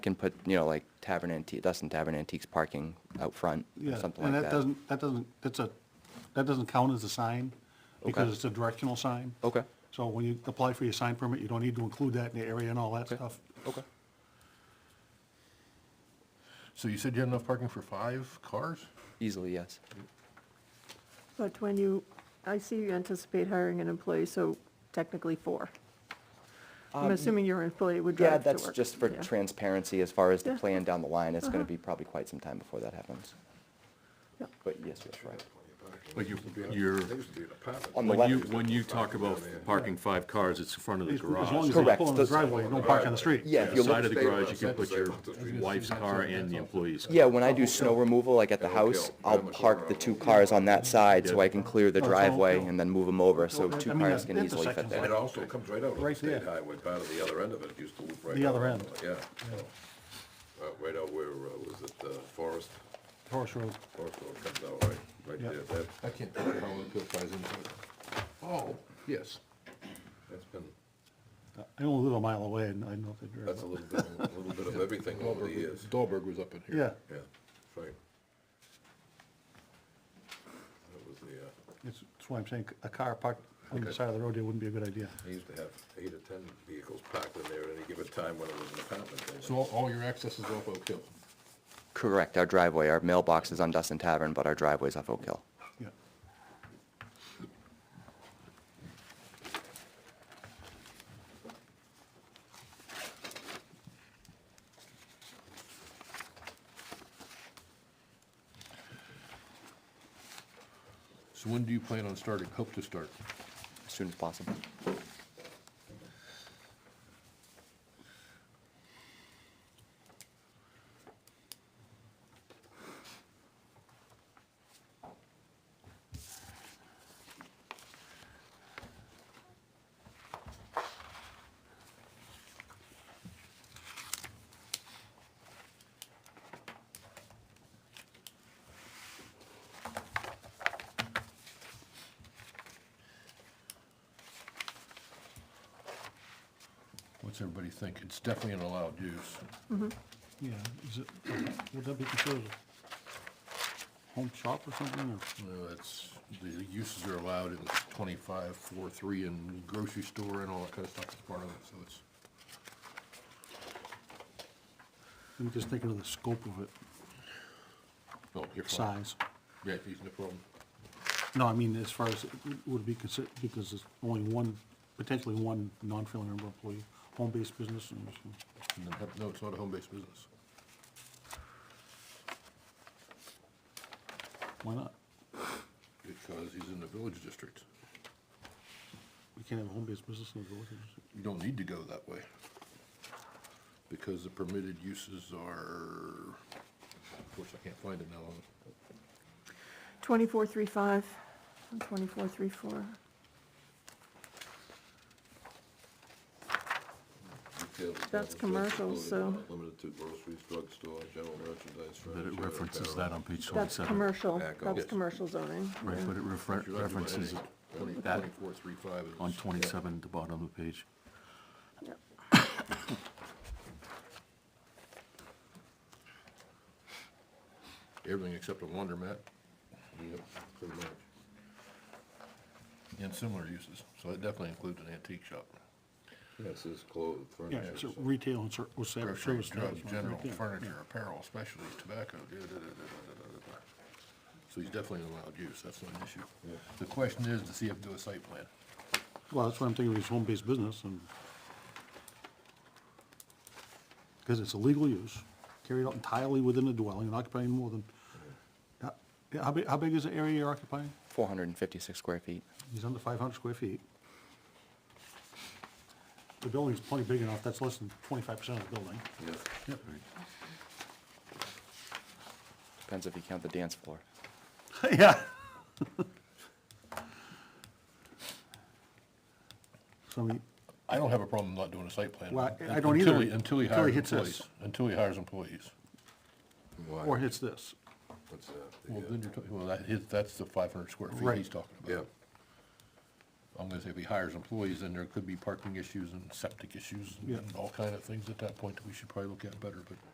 can put, you know, like Tavern Antique, Dustin Tavern Antiques parking out front, or Yeah, something and like that that. doesn't, that doesn't, that's a, that doesn't count as a sign, because Okay. it's a directional sign. Okay, So when you apply for your sign permit, you don't need to include that in the area and all that Okay. stuff. okay. So you said you had enough parking for five cars? Easily, yes. But when you, I see you anticipate hiring an employee, so technically four. I'm assuming your employee would Um, Yeah, drive to work. that's just for Yeah. transparency as far as the Yeah. Uh-huh. plan down the line. It's gonna be probably quite some time before that happens. Yeah. But yes, that's right. But you, you're, On the When you, left, when you talk about parking five cars, it's in front of the As as garage. long as you Correct. pull in the Does- driveway, you don't park on the street. yeah, if you Side look, of the garage, you can put your wife's car and the employee's. car. yeah, when I do snow removal, like at the house, I'll park the two cars on that side so I can clear the No, it's all driveway uphill. and then move them over, so Well, I- two I mean, cars that can easily fit intersection's there. It also comes right out of the Right state there. highway, part of the other end of it, used to loop right out. The other of end. it, Yeah. Uh, Right out where, uh, was it uh, Forest, Forest Road. Forest Road comes out right, right Yeah. there, that, I can't figure out how it applies into it. Oh, yes. that's been, I only live a mile away, and I know they drive. that's a little bit, a little bit of everything over the years, Dahlberg was up in here. Yeah, yeah, that's right. That was the, uh, it's- that's why I'm saying a car parked on the side of the road, there wouldn't be a good idea. they used to have eight or ten vehicles packed in there at any given time when it was an apartment building. So all, all your access is off Oak Hill? Correct, our driveway, our mailbox is on Dustin Tavern, but our driveway's off Oak Hill. Yeah. So when do you plan on starting, hope to start? as soon as possible. What's everybody think? It's definitely an allowed use. Yeah, is it, would that be considered a home shop or something, or? No, it's, the uses are allowed in twenty-five, four, three, and grocery store and all that kind of stuff is part of it, so it's. I'm just thinking of the scope of it, No, you're fine. size. Yeah, he's no problem. No, I mean, as far as, it would be considered, because there's only one, potentially one non-family member employee, home-based business, and so- And then have- No, it's not a home-based business. why not? Because he's in the village district. We can't have a home-based business in the village. You don't need to go that way. Because the permitted uses are, of course, I can't find it now. 2435 and 2434. Retail That's establishments commercial, included, so- not Limited to groceries, drugstore, general merchandise, That furniture. it references apparel. that on page That's twenty-seven. commercial, Back up. that's Yes. commercial zoning. Right, but it refer- references it that Twenty-four, three, five. is- on twenty-seven, at the bottom of the page. Yep. Everything except a laundromat Yep, pretty much. and similar uses, so that definitely includes an antique shop. Yes, it's clothes, Yeah, furniture. it's so- retail and ser- or ser- Grocery, service. drugs, establishment, general, right there. furniture, apparel, specialties, tobacco. da, da, da, da, da, da, da, da, da. So he's definitely allowed use, that's not an issue. The question is to see if do a site plan. Well, that's what I'm thinking, is home-based business, and, because it's a legal use, carried out entirely within the dwelling, and occupying more than, how- yeah, how big, how big is the area you're occupying? 456 square feet. He's under five hundred square feet. The building's plenty big enough, that's less than twenty-five percent of the building. Yeah. Depends if you count the dance floor. Yeah. So, I mean, I don't have a problem not doing a site plan. Well, I- I un- don't until either, he- Until he until he hires hits this. employees, until he hires employees. Why? or hits this, What's that? The, Well, uh, then you're, talking- well, that, his- that's the five hundred square feet Right. he's talking Yeah, about. I'm gonna say if he hires employees, then there could be parking issues and septic issues Yeah. and all kind of things at that point that we should probably look at better, but